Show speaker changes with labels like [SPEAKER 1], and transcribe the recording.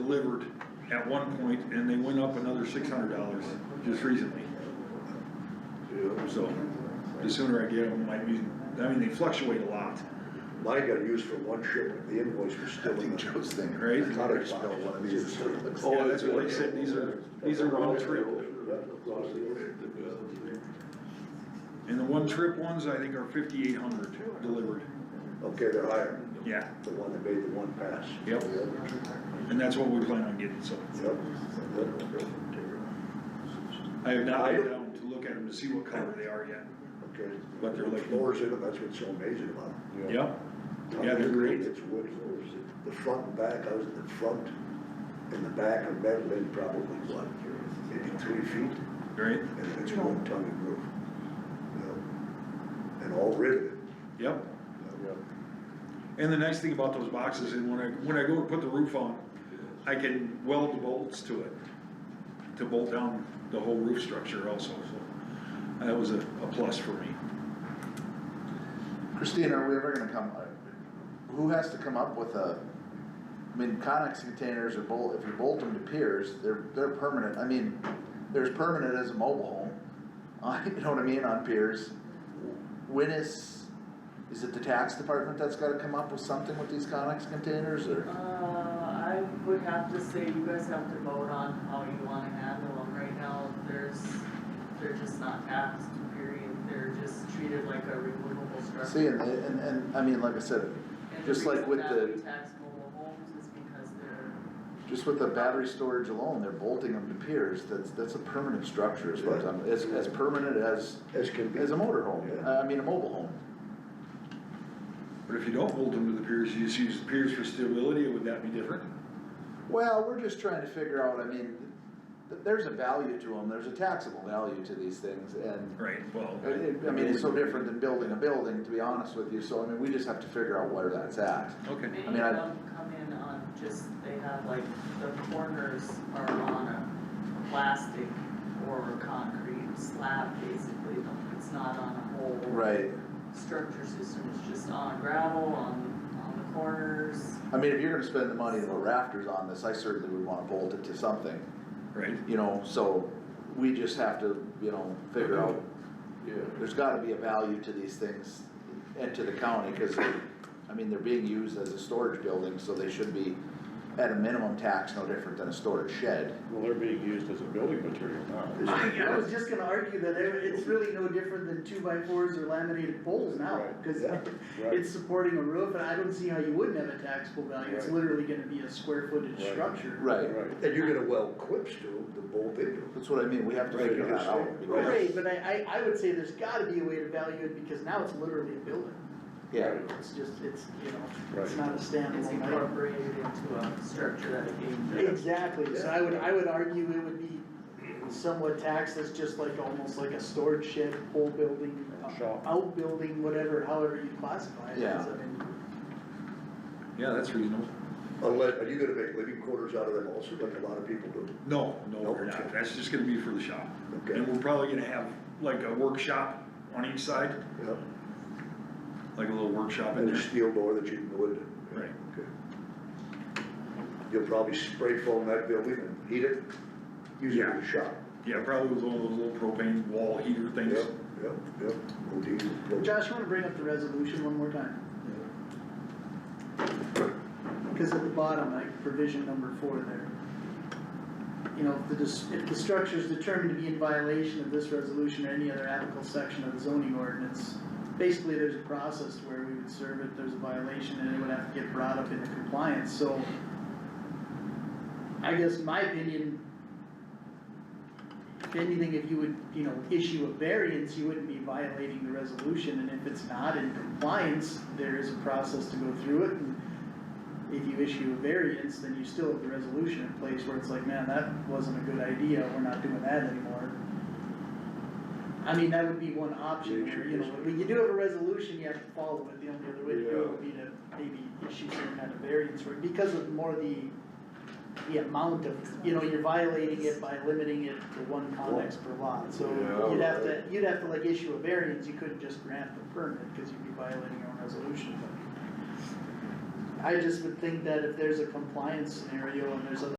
[SPEAKER 1] delivered at one point, and they went up another six hundred dollars just recently. So, the sooner I get them, might be, I mean, they fluctuate a lot,
[SPEAKER 2] Mine got used for one shipment, the invoice was
[SPEAKER 3] I
[SPEAKER 2] still in
[SPEAKER 3] think
[SPEAKER 2] the
[SPEAKER 3] Joe's thing.
[SPEAKER 1] right?
[SPEAKER 2] product box.
[SPEAKER 3] Smell one of these, is what
[SPEAKER 2] Oh,
[SPEAKER 3] it looks like.
[SPEAKER 1] Yeah, Oh, that's what they said, these are, these are all trip, and the one trip ones, I think are fifty-eight hundred delivered,
[SPEAKER 2] Okay, they're higher,
[SPEAKER 1] yeah,
[SPEAKER 2] the one that made the one pass.
[SPEAKER 1] yep, and that's what we plan on getting, so.
[SPEAKER 2] Yep, yep.
[SPEAKER 1] I have not been down to look at them to see what color they are yet.
[SPEAKER 2] Okay.
[SPEAKER 1] But they're like-
[SPEAKER 2] Floors in them, that's what's so amazing about them.
[SPEAKER 1] Yep, Yeah, they're great.
[SPEAKER 2] It's wood floors. The front and back, I was in the front and the back are metal in probably what, maybe three feet,
[SPEAKER 1] right,
[SPEAKER 2] and it's one ton of roof. you know, And all riveted.
[SPEAKER 1] yep.
[SPEAKER 2] you know.
[SPEAKER 1] And the nice thing about those boxes, and when I, when I go to put the roof on, I can weld the bolts to it, to bolt down the whole roof structure also, so that was a, a plus for me.
[SPEAKER 3] Christine, are we ever gonna come, uh, who has to come up with a, I mean, Conex containers are bolt, if you bolt them to piers, they're, they're permanent, I mean, there's permanent as a mobile home. Uh, you know what I mean, on piers. When is, is it the tax department that's gotta come up with something with these Conex containers,
[SPEAKER 4] Uh,
[SPEAKER 3] or?
[SPEAKER 4] I would have to say you guys have to vote on how you wanna handle them. Right now, there's, they're just not taxed, period. They're just treated like a removable structure.
[SPEAKER 3] See, and, they- and, and, I mean, like I said, just like with
[SPEAKER 4] And the
[SPEAKER 3] the-
[SPEAKER 4] reason that we tax mobile homes is because they're,
[SPEAKER 3] just with the battery storage alone, they're bolting them to piers, that's, that's a permanent structure, as far as I'm, as, as permanent as, Uh,
[SPEAKER 2] As can be.
[SPEAKER 3] as a motor home, I I mean, a mobile home.
[SPEAKER 1] But if you don't bolt them to the piers, you just use the piers for stability, would that be different?
[SPEAKER 3] Well, we're just trying to figure out, I mean, th- there's a value to them, there's a taxable value to these things, and
[SPEAKER 1] Right, well.
[SPEAKER 3] I I mean, it's so different than building a building, to be honest with you, so I mean, we just have to figure out where that's at.
[SPEAKER 1] Okay,
[SPEAKER 4] many
[SPEAKER 3] I
[SPEAKER 4] of
[SPEAKER 3] mean, I-
[SPEAKER 4] them come in on just, they have like, the corners are on a plastic or concrete slab, basically. It's not on a whole.
[SPEAKER 3] Right,
[SPEAKER 4] structure system is just on gravel, on, on the corners.
[SPEAKER 3] I mean, if you're gonna spend the money to put rafters on this, I certainly would wanna bolt it to something,
[SPEAKER 1] right,
[SPEAKER 3] you know, so we just have to, you know, figure out, there's gotta be a value to these things and to the county, cause they're, I mean, they're being used as a storage building, so they should be at a minimum tax, no different than a storage shed.
[SPEAKER 5] Well, they're being used as a building material now.
[SPEAKER 6] I was just gonna argue that it- it's really no different than two by fours or laminated poles now,
[SPEAKER 5] Right,
[SPEAKER 6] cause
[SPEAKER 2] yeah,
[SPEAKER 5] right.
[SPEAKER 6] it's supporting a roof, and I don't see how you wouldn't have a taxable value, it's
[SPEAKER 5] Right.
[SPEAKER 6] literally gonna be a square footage
[SPEAKER 5] Right.
[SPEAKER 6] structure.
[SPEAKER 3] Right,
[SPEAKER 5] Right.
[SPEAKER 2] And you're gonna weld quips to them, to bolt into them.
[SPEAKER 3] that's what I mean, we have to
[SPEAKER 2] Right,
[SPEAKER 3] figure that
[SPEAKER 2] understand.
[SPEAKER 3] out. because-
[SPEAKER 6] Right, but I, I, I would say there's gotta be a way to value it, because now it's literally a building,
[SPEAKER 3] Yeah,
[SPEAKER 6] it's just, it's, you know, it's
[SPEAKER 5] Right.
[SPEAKER 6] not a
[SPEAKER 4] It's
[SPEAKER 6] standalone item.
[SPEAKER 4] incorporated into a structure that it came from.
[SPEAKER 6] Exactly, so I would, I would argue it would be somewhat taxed as just like, almost like a storage shed, whole building,
[SPEAKER 5] Shop.
[SPEAKER 6] outbuilding, whatever, however you classify it as,
[SPEAKER 3] Yeah.
[SPEAKER 6] I mean.
[SPEAKER 1] yeah, that's reasonable.
[SPEAKER 2] Unless, are you gonna make living quarters out of them also, like a lot of people do?
[SPEAKER 1] No, no, we're not, that's just gonna be for the shop.
[SPEAKER 2] Okay.
[SPEAKER 1] And we're probably gonna have like a workshop on each side,
[SPEAKER 2] Yeah.
[SPEAKER 1] like a little workshop in
[SPEAKER 2] And a
[SPEAKER 1] there.
[SPEAKER 2] steel door that you can go into.
[SPEAKER 1] Right.
[SPEAKER 2] Okay. You'll probably spray foam that building and heat it, use it as a shop.
[SPEAKER 1] Yeah, probably with one of those little propane wall heater things.
[SPEAKER 2] Yep, yep, yep. We'll do- we'll-
[SPEAKER 6] Josh, you wanna bring up the resolution one more time? Cause at the bottom, like provision number four there. You know, if the, dis- if the structure is determined to be in violation of this resolution or any other applicable section of the zoning ordinance, basically there's a process to where we would serve it, there's a violation, and it would have to get brought up into compliance, so. I guess my opinion, if anything, if you would, you know, issue a variance, you wouldn't be violating the resolution, and if it's not in compliance, there is a process to go through it, and if you issue a variance, then you still have the resolution in place where it's like, man, that wasn't a good idea, we're not doing that anymore. I mean, that would be one option, where, you know, when you do have a resolution, you have to follow it, the only other way to do it would be to maybe issue some kind of variance, where, because of more the the amount of, you know, you're violating it by limiting it to one convex per lot, so
[SPEAKER 2] Yeah,
[SPEAKER 6] you'd have to,
[SPEAKER 2] right.
[SPEAKER 6] you'd have to like issue a variance, you couldn't just grant the permit, cause you'd be violating your own resolution, but. I just would think that if there's a compliance scenario and there's other